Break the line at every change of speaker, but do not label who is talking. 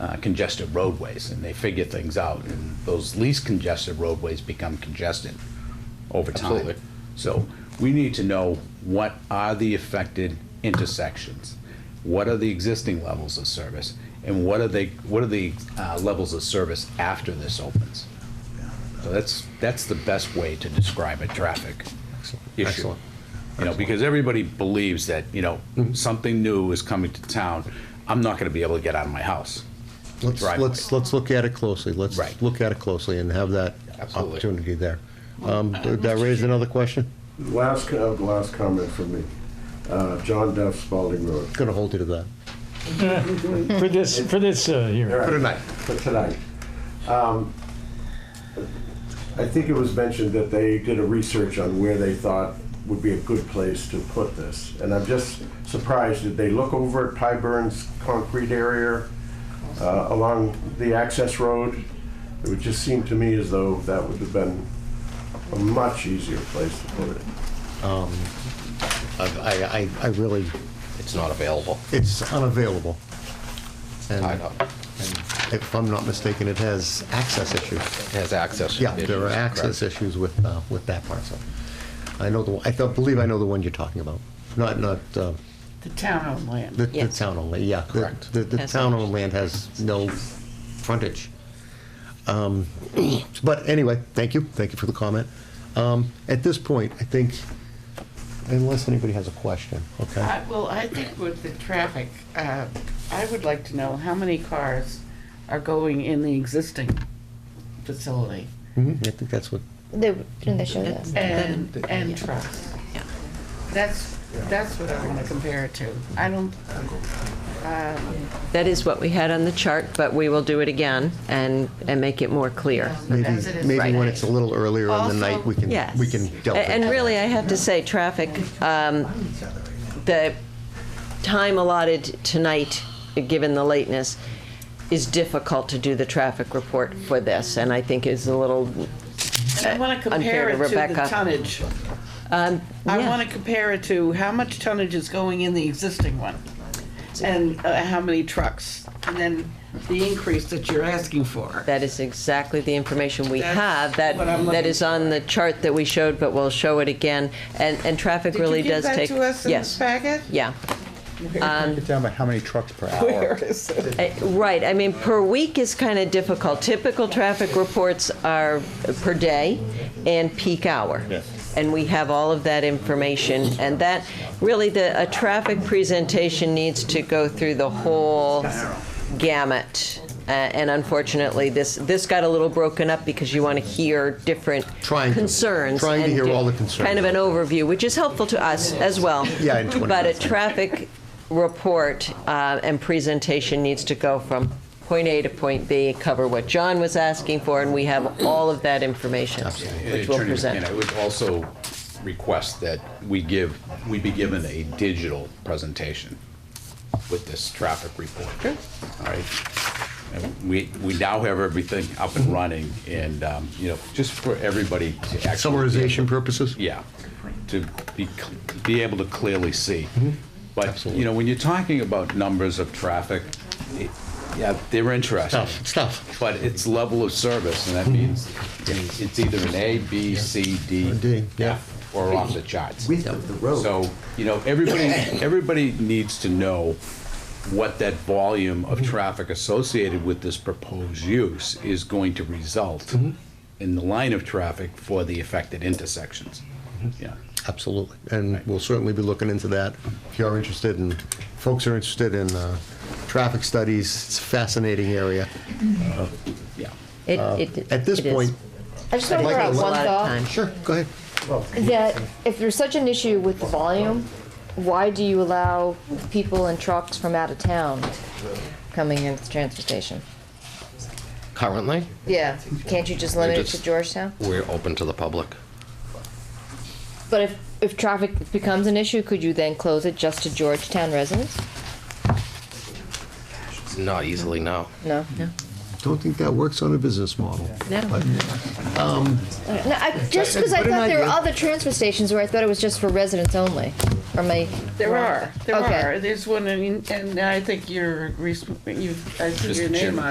uh, congested roadways, and they figure things out. And those least congested roadways become congested over time.
Absolutely.
So we need to know what are the affected intersections? What are the existing levels of service? And what are they, what are the uh, levels of service after this opens? So that's, that's the best way to describe a traffic issue.
Excellent. Mm-hmm.
You know, because everybody believes that, you know, something new is coming to town, I'm not gonna be able to get out of my house.
Let's,
driveway.
let's, let's look at it closely. Let's
Right.
look at it closely and have that
Absolutely.
opportunity there. Um, Did that raise another question?
Last, co- uh, last comment from me. Uh, John Duff, Spalding Road.
Gonna hold you to that.
For this, for this uh, hearing.
All
For
right,
tonight.
For tonight. Um, I think it was mentioned that they did a research on where they thought would be a good place to put this. And I'm just surprised, did they look over at Tyburn's concrete area uh, along the access road? It would just seem to me as though that would have been a much easier place to put it.
I, I, I really,
It's not available.
it's unavailable. And
I know.
if I'm not mistaken, it has access issues.
It has access.
Yeah, there are
issues,
access issues with, uh, with that parcel. I know the, I thought- believe I know the one you're talking about. Not, not, uh,
The town-owned
the,
land.
the
Yes.
town owned land, yeah. The-
Correct.
The, the
Has
town
no-
owned land has no frontage. Um, But anyway, thank you, thank you for the comment. Um, At this point, I think, unless anybody has a question, okay?
Uh,
I- Uh, Well, I think with the traffic, uh, I would like to know how many cars are going in the existing facility
Mhm, I think that's what,
They, didn't they show this?
and, and trucks.
Yeah.
That's, that's what I want to compare it to. I don't,
That is what we had on the chart, but we will do it again and, and make it more clear.
maybe,
as it is
maybe when
today.
it's a little earlier in the night, we can,
Yes.
we can delve
A- And
into
really,
that.
I have to say, traffic, um, the time allotted tonight, given the lateness, is difficult to do the traffic report for this, and I think is a little,
I want to compare
Uh, Unfair to
it to the
Rebecca.
tonnage.
um,
I
yeah.
want to compare it to how much tonnage is going in the existing one and uh, how many trucks. And then the increase that you're asking for.
That is exactly the information we
That's
have, that,
what I'm
that
looking
is on the chart that we showed, but we'll show it again, and, and traffic really does take.
Did you give that to us in this
Yes,
packet?
yeah.
Break it down by how many trucks per hour.
Uh, Right, I mean, per week is kind of difficult. Typical traffic reports are per day and peak hour.
Yes.
And we have all of that information, and that, really, the, a traffic presentation needs to go through the whole gamut. Uh, And unfortunately, this, this got a little broken up because you want to hear different
Trying to-
concerns.
trying to
and
hear
do-
all the concerns.
Kind of an overview, which is helpful to us as well.
Yeah, in 20
But a
minutes.
traffic report uh, and presentation needs to go from point A to point B, cover what John was asking for, and we have all of that information, which we'll
Attorney
present.
McKenna, I would also request that we give, we be given a digital presentation with this traffic report. Sure. All right. And We, we now have everything up and running and, um, you know, just for everybody to actually.
Summarization purposes?
Yeah, to be, cl- be able to clearly see. But,
Mm-hmm. Absolutely.
you know, when you're talking about numbers of traffic, it- yeah, they're interesting.
Stuff, stuff.
But it's level of service, and that means it's either an A, B, C, D,
Mm-hmm. D, yeah.
F, or off the charts.
width of the road.
So, you know, everybody, everybody needs to know what that volume of traffic associated with this proposed use is going to result in the line of traffic for the affected intersections. Yeah.
Absolutely, and we'll certainly be looking into that. If you're interested in, folks are interested in uh, traffic studies, it's a fascinating area.
Yeah.
It- it-
Uh, At this
it is.
point,
I just want to
I'd
throw
like
out
to-
one
A lot of
thought,
time.
sure, go ahead.
that if there's such an issue with the volume, why do you allow people and trucks from out of town coming into the transfer station?
Currently,
Yeah, can't you just limit it to
just-
Georgetown?
we're open to the public.
But if, if traffic becomes an issue, could you then close it just to Georgetown residents?
Not easily, no.
No? No.
don't think that works on a business model. um,
No.
No, I, just because I
But an
thought there were
idea.
other transfer stations where I thought it was just for residents only. Or my,
There are, there
Okay.
are. There's one, in- and I think you're, you've, I see your name on